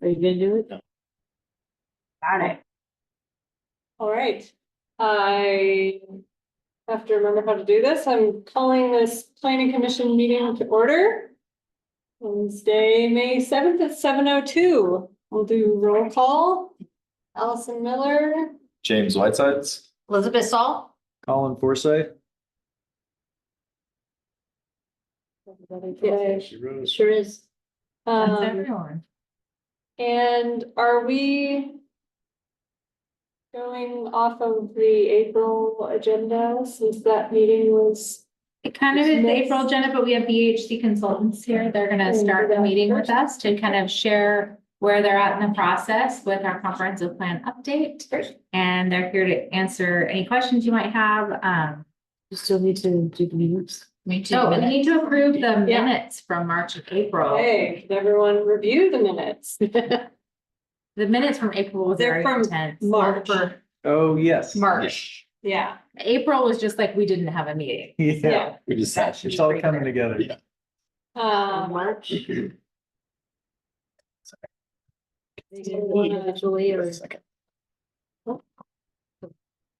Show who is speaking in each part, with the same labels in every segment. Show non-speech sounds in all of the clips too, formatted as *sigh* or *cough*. Speaker 1: Are you gonna do it?
Speaker 2: Got it.
Speaker 3: All right, I have to remember how to do this. I'm calling this planning commission meeting to order. Wednesday, May seventh at seven oh two. We'll do roll call. Allison Miller,
Speaker 4: James Whitesides.
Speaker 2: Elizabeth Saul?
Speaker 4: Colin Forsyth.
Speaker 3: Yeah.
Speaker 1: Sure is.
Speaker 3: um, and are we going off of the April agenda since that meeting was,
Speaker 2: It kind of is the
Speaker 3: Yes.
Speaker 2: April agenda, but we have BHC consultants here. They're gonna start the meeting with us to kind of share where they're at in the process with our comprehensive plan update. And they're here to answer any questions you might have. Um,
Speaker 1: You still need to do the minutes.
Speaker 5: Me too.
Speaker 2: so we Oh, need to approve the
Speaker 3: Yeah.
Speaker 2: minutes from March and April.
Speaker 3: hey, did everyone review the minutes?
Speaker 2: The minutes from April was
Speaker 3: They're
Speaker 2: very
Speaker 3: from
Speaker 2: intense.
Speaker 3: March.
Speaker 2: For
Speaker 4: Oh, yes.
Speaker 2: March.
Speaker 3: Yeah,
Speaker 2: April was just like, we didn't have a meeting.
Speaker 4: Yeah,
Speaker 3: yeah.
Speaker 5: We just.
Speaker 2: That's
Speaker 4: it's all coming together.
Speaker 5: Yeah.
Speaker 3: Um,
Speaker 1: uh, March.
Speaker 3: Individually
Speaker 1: or-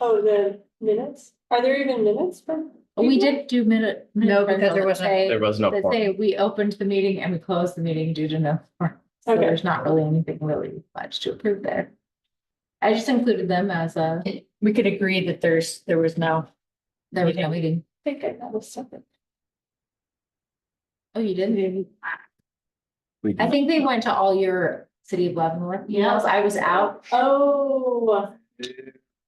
Speaker 3: Oh, the minutes? Are there even minutes from?
Speaker 2: Oh, We did do minute.
Speaker 5: No,
Speaker 2: minute
Speaker 5: because there
Speaker 2: that
Speaker 5: wasn't-
Speaker 2: say-
Speaker 5: There was no.
Speaker 2: That
Speaker 5: quorum.
Speaker 2: say we opened the meeting and we closed the meeting due to no. quorum. So
Speaker 3: Okay.
Speaker 2: there's not really anything really much to approve there. I just included them as a,
Speaker 5: We could agree that there's, there was no.
Speaker 2: there was no meeting.
Speaker 3: I think I got something.
Speaker 2: Oh, you didn't?
Speaker 4: We
Speaker 2: I think they went to all your city of Leavenworth emails. I was out.
Speaker 3: Oh,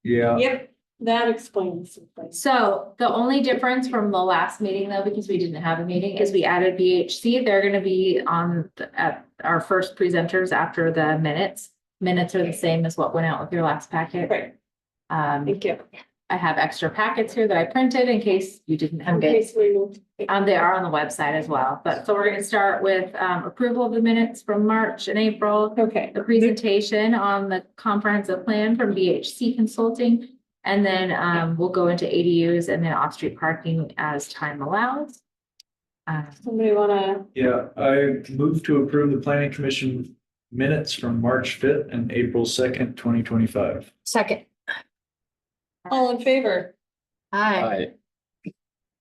Speaker 4: Yeah.
Speaker 3: yep, that explains some things.
Speaker 2: So the only difference from the last meeting though, because we didn't have a meeting, is we added BHC. They're gonna be on the- at our first presenters after the minutes. Minutes are the same as what went out with your last packet.
Speaker 3: Right,
Speaker 2: Um,
Speaker 3: thank you.
Speaker 2: I have extra packets here that I printed in case you didn't
Speaker 3: In
Speaker 2: have it.
Speaker 3: case we moved.
Speaker 2: Um, they are on the website as well, but so we're gonna start with um approval of the minutes from March and April.
Speaker 3: Okay,
Speaker 2: The presentation on the comprehensive plan from BHC Consulting. And then um we'll go into ADUs and then off-street parking as time allows. Um,
Speaker 3: somebody wanna,
Speaker 4: Yeah, I move to approve the planning commission minutes from March fifth and April second, twenty twenty-five.
Speaker 5: Second.
Speaker 3: all in favor?
Speaker 5: Hi.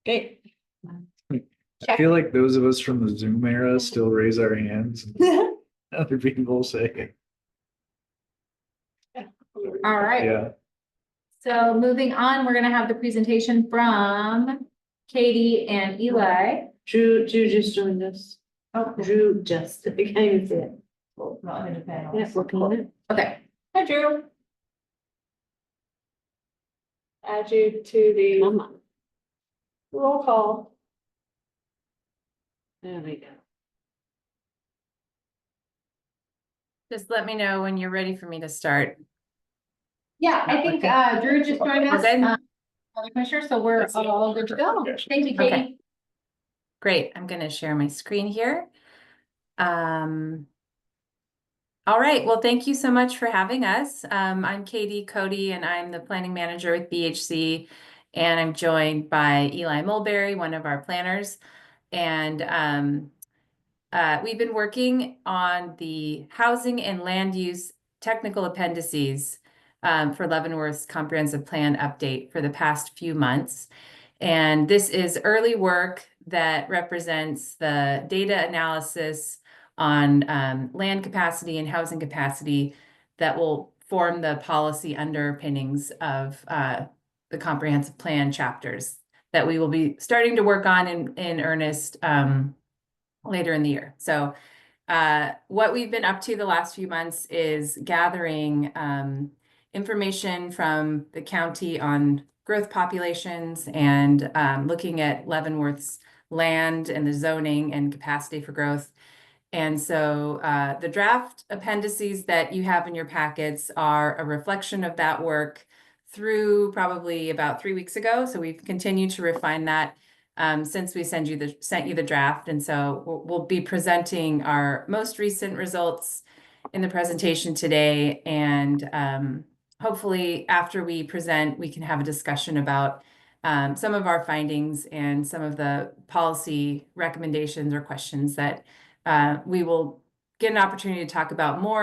Speaker 3: Great. *laughs*
Speaker 4: I feel like those of us from the Zoom era still raise our hands. and *laughs* Other people say,
Speaker 2: all right.
Speaker 4: yeah.
Speaker 2: So moving on, we're gonna have the presentation from Katie and Eli.
Speaker 1: Drew, Drew just joined us.
Speaker 2: Oh,
Speaker 1: Drew just, I can't even say it.
Speaker 2: not in the panel.
Speaker 1: Yeah, looking at it.
Speaker 2: Okay,
Speaker 3: Hi, Drew. Add you to the
Speaker 1: Mama.
Speaker 3: roll call.
Speaker 1: There we go.
Speaker 6: Just let me know when you're ready for me to start.
Speaker 2: yeah, I think uh Drew just joined us.
Speaker 6: Okay.
Speaker 2: um, Other commissioner, so we're all good to go. Thank you, Katie.
Speaker 6: Okay. Great, I'm gonna share my screen here. Um. All right, well, thank you so much for having us. Um, I'm Katie Cody and I'm the planning manager with BHC. And I'm joined by Eli Mulberry, one of our planners. And um. Uh, we've been working on the housing and land use technical appendices. Um, for Leavenworth's comprehensive plan update for the past few months. And this is early work that represents the data analysis on um, land capacity and housing capacity that will form the policy underpinnings of uh, the comprehensive plan chapters that we will be starting to work on in, in earnest um, later in the year. So uh, what we've been up to the last few months is gathering um, information from the county on growth populations and um, looking at Leavenworth's land and the zoning and capacity for growth. And so uh, the draft appendices that you have in your packets are a reflection of that work through probably about three weeks ago. So we've continued to refine that um, since we send you the sent you the draft. And so we'll, we'll be presenting our most recent results in the presentation today and um, hopefully after we present, we can have a discussion about um, some of our findings and some of the policy recommendations or questions that uh, we will get an opportunity to talk about more